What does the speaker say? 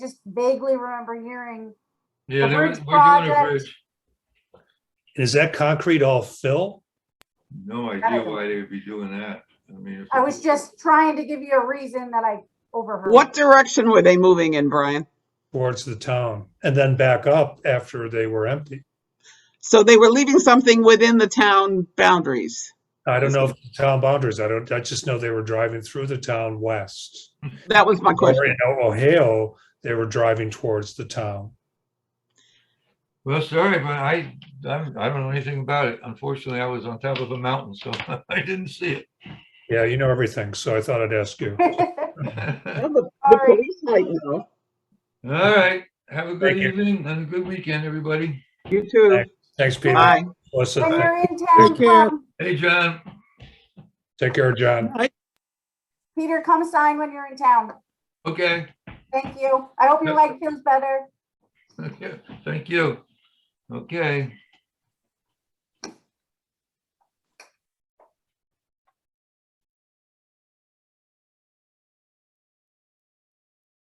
vaguely remember hearing, Yeah, The they were- bridge we're doing a project. bridge. Is that concrete all fill? No idea why they would be doing that. I mean. if I it was just trying to give you a reason that I overheard. What direction were they moving in, Brian? towards the town and then back up after they were empty? So they were leaving something within the town boundaries. I don't know if the town boundaries, I don't, I just know they were driving through the town west. That was my Or question. in Ohio, they were driving towards the town. Well, sorry, but I, I'm, I don't know anything about it. Unfortunately, I was on top of a mountain, so I didn't see Yeah, you know everything, so I thought I'd ask you. it. Well, The All the right. police might know. All right, have a good Thank you. evening and a good weekend, everybody. You too. Thanks, Peter. Bye. Melissa, When thank- you're in town, Take care. come. Hey, John. take care, John. Peter, come sign when you're in town. Okay, Thank you. I hope your Yeah. leg feels better. thank you. Okay,